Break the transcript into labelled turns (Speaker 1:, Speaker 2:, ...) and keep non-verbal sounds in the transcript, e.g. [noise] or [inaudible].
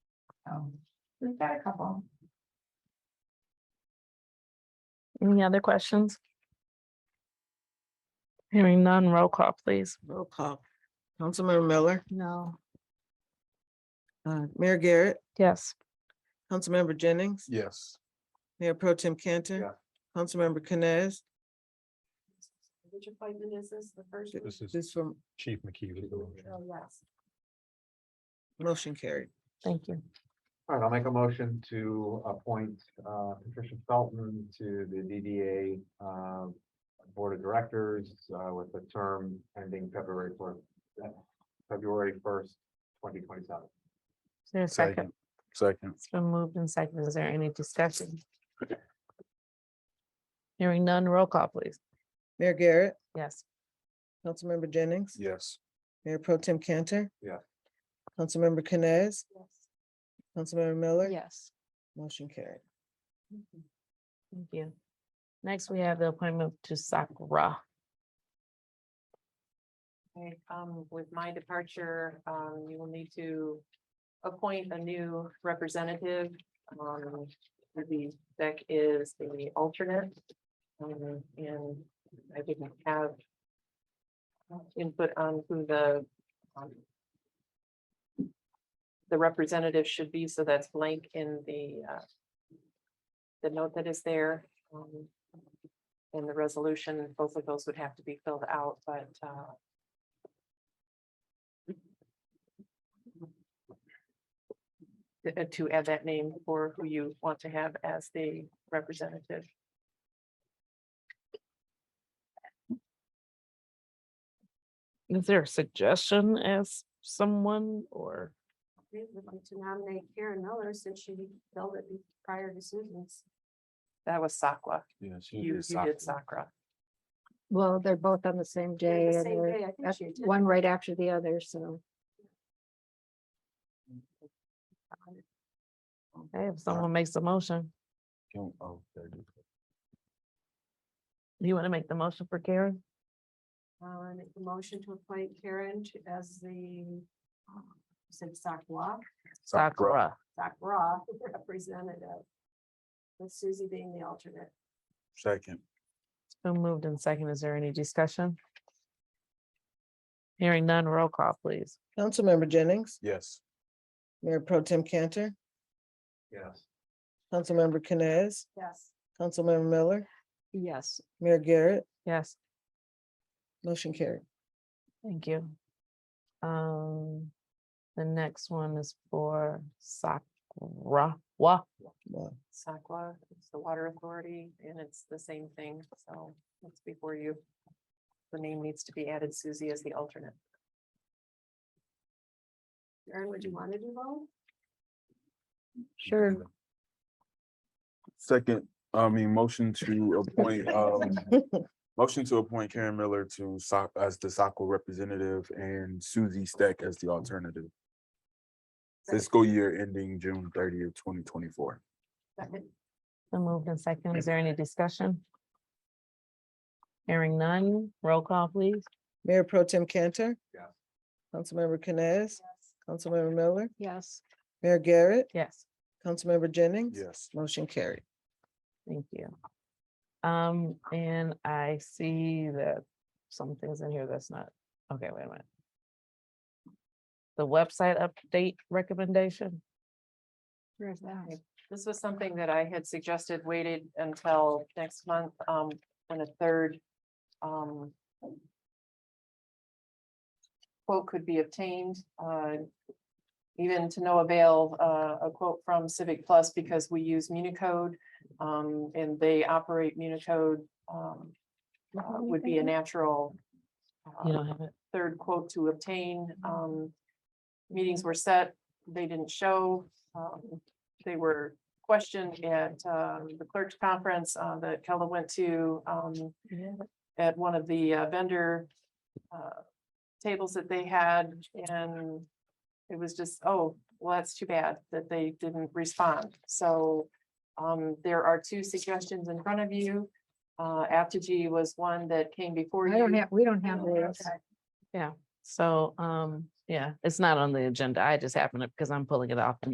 Speaker 1: Um, We've got a couple.
Speaker 2: Any other questions? Hearing none, roll call, please.
Speaker 3: Roll call. Councilmember Miller,
Speaker 2: No.
Speaker 3: uh, Mayor Garrett,
Speaker 2: Yes,
Speaker 3: Councilmember Jennings,
Speaker 4: Yes.
Speaker 3: Mayor Pro Tim Cantor, Councilmember Canes.
Speaker 1: Which appointment is this? The first?
Speaker 4: This is
Speaker 3: This from
Speaker 4: Chief McKee. with the motion.
Speaker 1: Oh, yes.
Speaker 3: motion carried.
Speaker 2: thank you.
Speaker 5: All right, I'll make a motion to appoint uh, Patricia Felton to the DDA uh, Board of Directors uh, with the term ending February fourth, February first, twenty twenty-seven.
Speaker 2: Is there a second?
Speaker 4: Second.
Speaker 2: It's been moved and seconded. Is there any discussion? Hearing none, roll call, please.
Speaker 3: Mayor Garrett,
Speaker 2: Yes,
Speaker 3: Councilmember Jennings,
Speaker 4: Yes.
Speaker 3: Mayor Pro Tim Cantor.
Speaker 5: Yeah.
Speaker 3: Councilmember Canes,
Speaker 1: Yes.
Speaker 3: Councilmember Miller.
Speaker 2: yes.
Speaker 3: Motion carried.
Speaker 2: Mm-hmm. Thank you. Next, we have the appointment to Sakura.
Speaker 1: Okay, um, with my departure, um, you will need to appoint a new representative. Um, the deck is the alternate. Um, and I didn't have input on who the um, the representative should be, so that's blank in the uh the note that is there. um, In the resolution, both of those would have to be filled out, but uh uh, to add that name for who you want to have as the representative.
Speaker 2: Is there a suggestion as someone or?
Speaker 6: I would like to nominate Karen Miller since she filled it be- prior to Susan's.
Speaker 1: That was Sakwa.
Speaker 4: Yes.
Speaker 1: You, you did Sakura.
Speaker 7: Well, they're both on the same day
Speaker 6: They're the
Speaker 7: and
Speaker 6: same
Speaker 7: they're
Speaker 6: day, I think
Speaker 7: at-
Speaker 6: she attended.
Speaker 7: one right after the other, so.
Speaker 2: Okay, if someone makes a motion,
Speaker 4: Oh,
Speaker 2: you want to make the motion for Karen?
Speaker 6: Uh, I make the motion to appoint Karen to- as the, um, said Sakwa,
Speaker 2: Sakura.
Speaker 6: Sakra [laughs] representative. With Susie being the alternate.
Speaker 4: Second.
Speaker 2: It's been moved and second. Is there any discussion? Hearing none, roll call, please.
Speaker 3: Councilmember Jennings,
Speaker 4: Yes.
Speaker 3: Mayor Pro Tim Cantor,
Speaker 5: Yes.
Speaker 3: Councilmember Canes,
Speaker 6: Yes.
Speaker 3: Councilmember Miller,
Speaker 7: Yes.
Speaker 3: Mayor Garrett,
Speaker 2: Yes,
Speaker 3: motion carried.
Speaker 2: thank you. Um, the next one is for Sakura. Wa.
Speaker 3: Wow.
Speaker 1: Sakwa is the water authority and it's the same thing. So it's before you. The name needs to be added Susie as the alternate.
Speaker 6: Karen, would you want to do both?
Speaker 7: Sure.
Speaker 8: Second, I mean, motion to appoint, um, motion to appoint Karen Miller to SOC as the SACO representative and Susie Stack as the alternative. Fiscal year ending June thirtieth, twenty twenty-four.
Speaker 6: Second.
Speaker 2: Been moved and second. Is there any discussion? Hearing none, roll call, please.
Speaker 3: Mayor Pro Tim Cantor.
Speaker 5: Yeah.
Speaker 3: Councilmember Canes, Councilmember Miller,
Speaker 7: Yes.
Speaker 3: Mayor Garrett,
Speaker 2: Yes,
Speaker 3: Councilmember Jennings.
Speaker 8: Yes.
Speaker 3: Motion carried.
Speaker 2: thank you. Um, and I see that some things in here that's not, okay, wait a minute. The website update recommendation,
Speaker 7: Where's that?
Speaker 1: This was something that I had suggested waited until next month, um, when a third, um. Quote could be obtained, uh. Even to no avail, uh, a quote from Civic Plus because we use Municode, um, and they operate Municode, um. uh, would be a natural. uh,
Speaker 2: you don't have it?
Speaker 1: third quote to obtain. Um, meetings were set, they didn't show. Um, they were questioned at, um, the clerk's conference, uh, that Kella went to, um, at one of the uh, vendor, uh, tables that they had and it was just, oh, well, that's too bad that they didn't respond. So, um, there are two suggestions in front of you. Uh, Apogee was one that came before you.
Speaker 7: I don't have, we don't have those.
Speaker 2: So, um, yeah, it's not on the agenda. I just happened to, because I'm pulling it off the